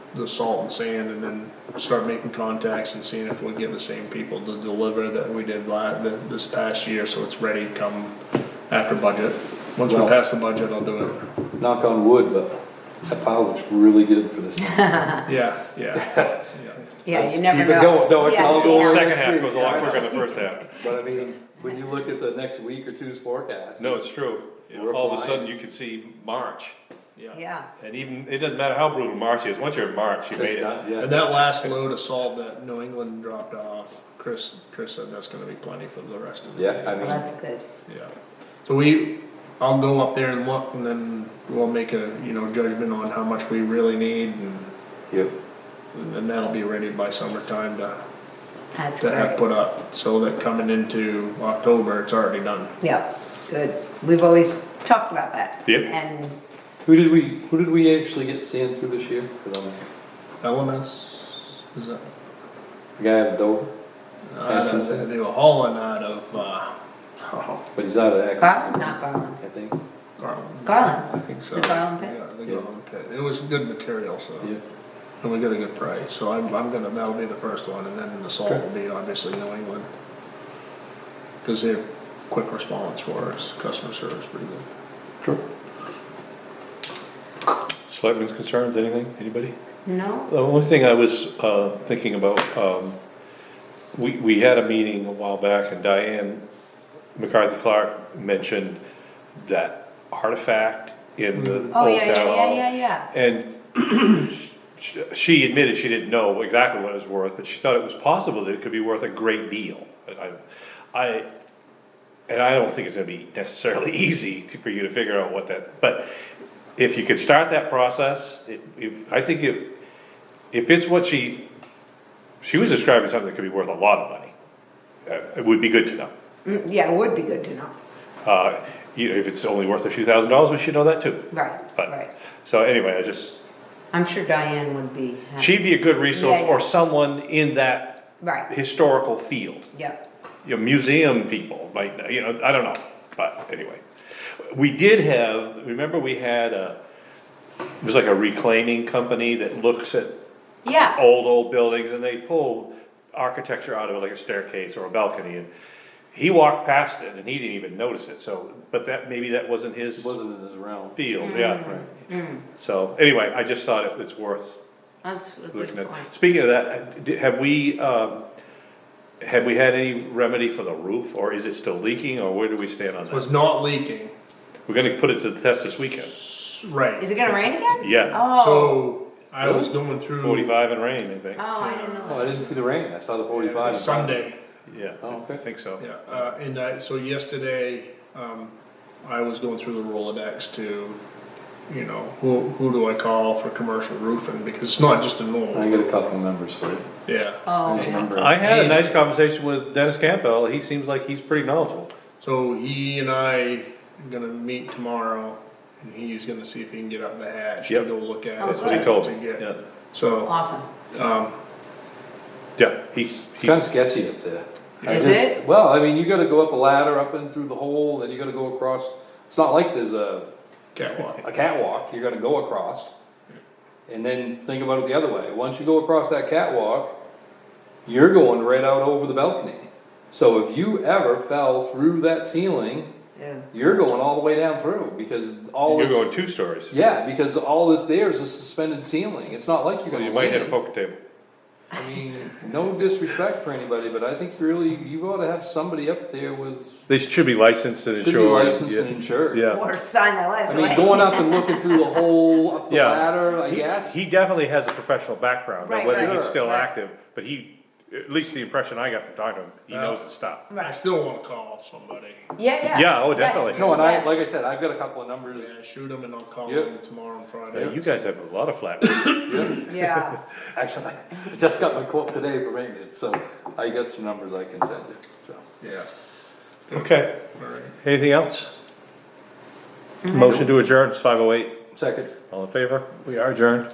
the salt and sand and then start making contacts and seeing if we get the same people to deliver that we did la, th this past year, so it's ready come after budget. Once we Well- pass the budget, I'll do it. knock on wood, but that pile looks really good for this. Yeah, yeah, yeah. Yeah, Let's you never keep know. it going. No, it can Yeah, all go damn. away. Second next half week. goes a lot quicker than the first half. But I mean, when you look at the next week or two's forecast. No, it's true. We're All of a flying. sudden, you could see March, Yeah, and even, it doesn't matter how brutal March is, once you're in March, you made It's it. done, yeah. And that last load of salt that New England dropped off, Chris, Chris said that's gonna be plenty for the rest of the Yeah, I well, mean, that's good. Yeah, so we, I'll go up there and look and then we'll make a, you know, judgment on how much we really need and, yeah, and then that'll be ready by summertime to, That's to have great. put up, so that coming into October, it's already done. Yeah, good. We've always talked about that. Yep. And who did we, who did we actually get sand through this year? 'Cause I'm- LMS, is that? The guy out of Dover, out of- Atkinson. Uh, They were hauling out of, uh, oh, but he's out of Garland, Atkinson, not Garland, I think, Garland. I Garland. think so. The Garland pit? Yeah, the Yeah. Garland pit. It was good material, so. yeah. And we got a good price, so I'm, I'm gonna, that'll be the first one, and then the salt will be obviously New England. Cause they're quick response for us, customer service pretty good. Sure. Selectmen's concerns, anything, anybody? No? The only thing I was, uh, thinking about, um, we, we had a meeting a while back and Diane McCarthy Clark mentioned that artifact in the old town Oh, yeah, yeah, hall. yeah, yeah, yeah. And sh- she admitted she didn't know exactly what it was worth, but she thought it was possible that it could be worth a great deal. I, I, and I don't think it's gonna be necessarily easy to- for you to figure out what that, but if you could start that process, it, if, I think if, if it's what she, she was describing something that could be worth a lot of money, uh, it would be good to know. Mm, Yeah, it would be good to know. Uh, you know, if it's only worth a few thousand dollars, we should know that too. Right, right. But, so anyway, I just, I'm sure Diane would be happy. She'd be a good resource, Yeah, yeah. or someone in that Right, historical field. yep. Your museum people might, know, you know, I don't know, but anyway. We did have, remember we had a, it was like a reclaiming company that looks at Yeah, old, old buildings and they pulled architecture out of it, like a staircase or a balcony and he walked past it and he didn't even notice it, so, but that, maybe that wasn't his It wasn't in his realm. field, yeah. Right. So anyway, I just thought it was worth that's a good looking at, point. speaking of that, d- have we, um, have we had any remedy for the roof, or is it still leaking, or where do we stand on Was that? not leaking, We're gonna put it to the test this weekend, S- right, Is it gonna rain again? yeah, Oh, so I was going through. forty-five and rain, I think, oh, I didn't know. Oh, I didn't see the rain, I saw the forty-five. Sunday, yeah, Oh, I okay. think so. yeah, uh, and I, so yesterday, um, I was going through the Rolodex to, you know, who, who do I call for commercial roofing, because it's not just a I normal, got a couple of numbers for you. yeah. Oh, There's a okay. number. I had a nice conversation with Dennis Campbell, he seems like he's pretty knowledgeable. So he and I are gonna meet tomorrow, and he's gonna see if he can get up the hatch to Yep. go look at. Oh, it That's what he to- told to me, get- yeah, So, awesome. um, yeah, he's, It's he- kinda sketchy up there. I Is just- it? Well, I mean, you gotta go up a ladder, up and through the hole, then you gotta go across, it's not like there's a catwalk, a catwalk you're gonna go across. And then think about it the other way. Once you go across that catwalk, you're going right out over the balcony. So if you ever fell through that ceiling, Yeah. you're going all the way down through because all you're it's, going two stories, yeah, because all that's there is a suspended ceiling. It's not like you're Well, gonna you might hit land. a poker table. I mean, no disrespect for anybody, but I think really you ought to have somebody up there with They should be licensed and should be insured. licensed and insured. Yeah. Or sign that last I away. mean, going up and looking through the hole up the Yeah. ladder, I He- guess. He definitely has a professional background, now Right, whether right. he's still Sure. active, but he, at least the impression I got from talking to him, he Yeah. knows Mm-hmm. his stuff. I still wanna call somebody, Yeah, yeah. Yeah, oh, Yes, definitely. No, and I, yes. like I said, I've got a couple of numbers. yeah, shoot him and I'll call Yep. him tomorrow and Now, Friday. you guys have a lot of flat roofs. Yeah. Yeah, Actually, I just got my quote today for maintenance, so I got some numbers I can send you, so. Yeah, Okay, alright. anything else? Mm-hmm. Motion to adjourn, it's five oh eight, Second. all in favor? We are adjourned.